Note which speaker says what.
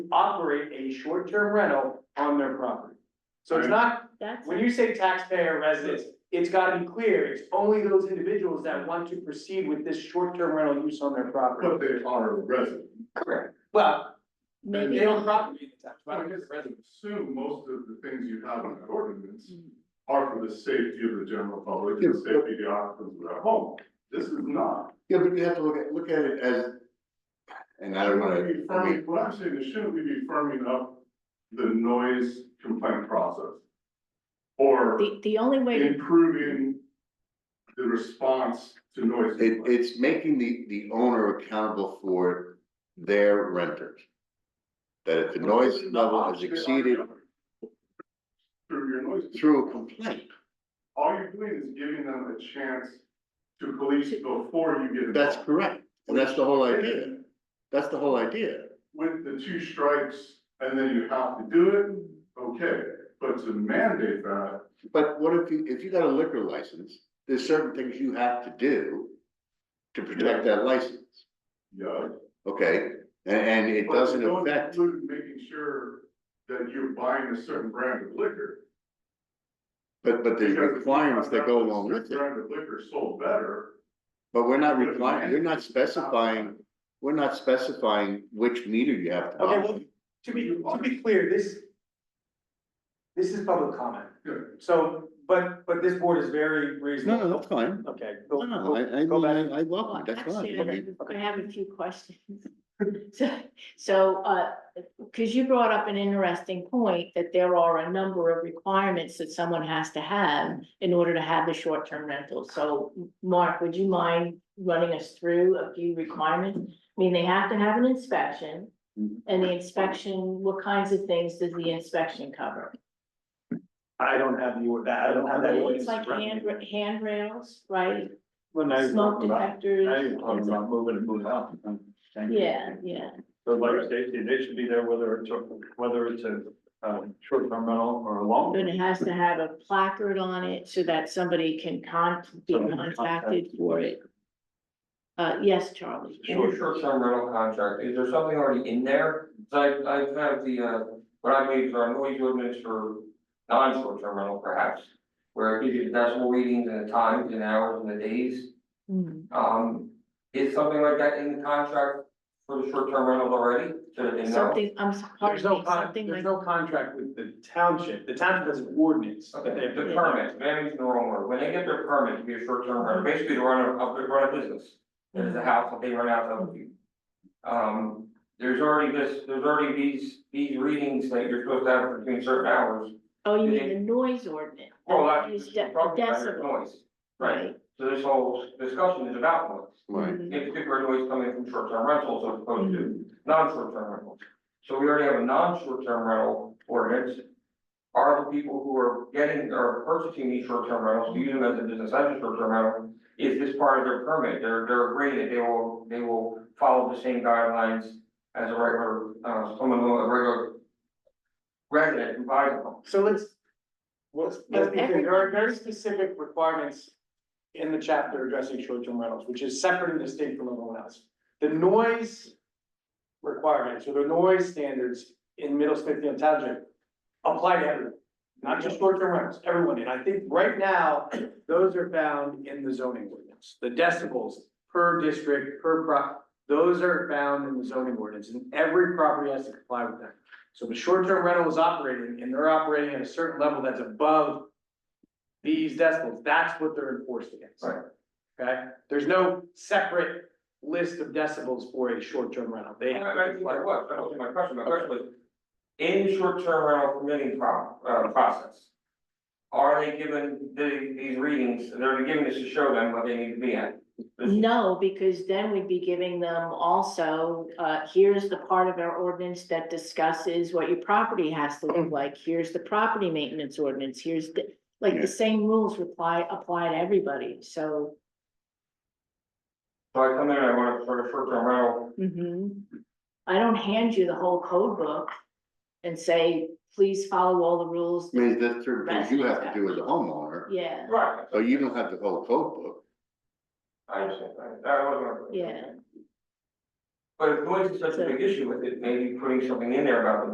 Speaker 1: operate a short-term rental on their property. So it's
Speaker 2: Right.
Speaker 1: not,
Speaker 3: That's,
Speaker 1: when you say taxpayer residents, it's gotta be clear, it's only those individuals that want to proceed with this short-term rental use on their property.
Speaker 2: But they are a resident.
Speaker 1: Correct. Well,
Speaker 3: maybe.
Speaker 1: they own property in the tax,
Speaker 2: I
Speaker 1: but
Speaker 2: guess
Speaker 1: it's
Speaker 2: I
Speaker 1: resident.
Speaker 2: would assume most of the things you have in the ordinance are for the safety of the general public, and the
Speaker 4: Yeah.
Speaker 2: safety of the occupants of their home. This is not.
Speaker 4: Yeah, but you have to look at, look at it as, and I don't
Speaker 2: Be
Speaker 4: wanna, I mean,
Speaker 2: firming, what I'm saying is shouldn't we be firming up the noise complaint process? Or
Speaker 3: The, the only way to
Speaker 2: improving the response to noise
Speaker 4: it,
Speaker 2: complaints?
Speaker 4: it's making the, the owner accountable for their renters. That if the noise level is exceeded
Speaker 2: Through your noise.
Speaker 4: through a complaint,
Speaker 2: All you're doing is giving them a chance to police before you get involved.
Speaker 4: that's correct, and that's the whole idea, that's the whole idea.
Speaker 2: With the two strikes, and then you have to do it, okay, but to mandate that,
Speaker 4: But what if you, if you got a liquor license, there's certain things you have to do to protect that license,
Speaker 2: yeah.
Speaker 4: okay? And, and it
Speaker 2: But
Speaker 4: doesn't
Speaker 2: don't
Speaker 4: affect,
Speaker 2: include Making sure that you're buying a certain brand of liquor.
Speaker 4: but, but there's
Speaker 2: because if you
Speaker 4: requirements that
Speaker 2: have
Speaker 4: go
Speaker 2: a
Speaker 4: along with
Speaker 2: certain
Speaker 4: it.
Speaker 2: Brand of liquor sold better.
Speaker 4: But we're not
Speaker 2: Good
Speaker 4: requiring,
Speaker 2: man.
Speaker 4: you're not specifying, we're not specifying which meter you have to
Speaker 1: Okay,
Speaker 4: buy.
Speaker 1: well, to be, to be clear, this. This is public comment,
Speaker 2: Good.
Speaker 1: so, but, but this board is very reasonable.
Speaker 4: No, no, that's fine.
Speaker 1: Okay.
Speaker 4: No,
Speaker 1: go-
Speaker 4: no,
Speaker 1: go-
Speaker 4: I, I,
Speaker 1: go
Speaker 4: mean,
Speaker 1: back.
Speaker 4: I I
Speaker 3: Well,
Speaker 4: welcome, it, that's
Speaker 3: actually,
Speaker 4: fine. I mean,
Speaker 3: I have a few questions. So, so, uh, because you brought up an interesting point that there are a number of requirements that someone has to have in order to have the short-term rental. So, Mark, would you mind running us through a few requirements? I mean, they have to have an inspection,
Speaker 4: Mhm.
Speaker 3: and the inspection, what kinds of things does the inspection cover?
Speaker 1: I don't have the, or- that, I don't have that.
Speaker 3: Things like hand, handrails, right?
Speaker 1: Well, now you're
Speaker 3: Smoke
Speaker 1: talking about- now
Speaker 3: detectors?
Speaker 1: you're talking about moving and moving out.
Speaker 3: Yeah, yeah.
Speaker 5: So like safety, they should be there whether it's, a- whether it's a, um, short-term rental or a long.
Speaker 3: But it has to have a placard on it so that somebody can con, be contacted for it. Uh, yes, Charlie.
Speaker 6: Short, short-term rental contract, is there something already in there? 'Cause I, I've had the, uh, what I made for our noise ordinance for non-short-term rental perhaps. Where it gives you the decimal readings and the times and hours and the days,
Speaker 3: Mhm.
Speaker 6: um, is something like that in the contract for the short-term rentals already? So that they know?
Speaker 3: Something, I'm sorry,
Speaker 1: There's no con,
Speaker 3: something
Speaker 1: there's
Speaker 3: like,
Speaker 1: no contract with the township, the township has an ordinance. that they
Speaker 6: Okay,
Speaker 1: have
Speaker 6: the
Speaker 1: to-
Speaker 6: permit, maybe I'm using the wrong word, when they get their permit to be a short-term rental, basically to run a, to run a business. It is a house that they rent out to other people. Um, there's already this, there's already these, these readings that you're supposed to have between certain hours.
Speaker 3: oh, you mean the noise ordinance?
Speaker 6: Well, that's
Speaker 3: Is
Speaker 6: just
Speaker 3: de-
Speaker 6: talking about your
Speaker 3: decibel,
Speaker 6: noise.
Speaker 3: Right.
Speaker 6: So this whole discussion is about noise,
Speaker 4: Right.
Speaker 3: Mhm.
Speaker 6: in particular noise coming from short-term rentals as
Speaker 3: Mm-hmm.
Speaker 6: opposed to non-short-term rentals. So we already have a non-short-term rental ordinance. Are the people who are getting or purchasing these short-term rentals, using them as a business as a short-term rental, is this part of their permit? They're, they're agreeing that they will, they will follow the same guidelines as a regular, uh, someone, who- a regular resident who buys them.
Speaker 1: So let's, let's, let's be clear, there are very
Speaker 3: Everyone-
Speaker 1: specific requirements in the chapter addressing short-term rentals, which is separate and distinct from everyone else. The noise requirements or the noise standards in Middle Smithfield Township apply to everyone, not just short-term rentals, everyone. And I think right now, those are found in the zoning ordinance. The decibels per district, per pro, those are found in the zoning ordinance and every property has to comply with that. So the short-term rental is operating and they're operating at a certain level that's above these decibels, that's what they're enforced against.
Speaker 6: Right.
Speaker 1: Okay, there's no separate list of decibels for a short-term rental, they.
Speaker 6: Yeah, I think my, what, that was my question, my question was, in the short-term rental permitting pro, uh, process. Are they given the, these readings, they're giving this to show them what they need to be at?
Speaker 3: No, because then we'd be giving them also, uh, here's the part of our ordinance that discusses what your property has to look like. Here's the property maintenance ordinance, here's the, like,
Speaker 4: Yeah.
Speaker 3: the same rules apply, apply to everybody, so.
Speaker 6: So I come in and I want a sort of short-term rental,
Speaker 3: Mhm. I don't hand you the whole code book and say, please follow all the rules.
Speaker 4: I mean, that's certain things you have to do as a homeowner,
Speaker 3: Yeah,
Speaker 6: right,
Speaker 4: so Oh, you don't have the whole code book.
Speaker 6: I understand, I, I wasn't.
Speaker 3: yeah.
Speaker 6: But if noise is such a big issue with it, maybe putting something in there about the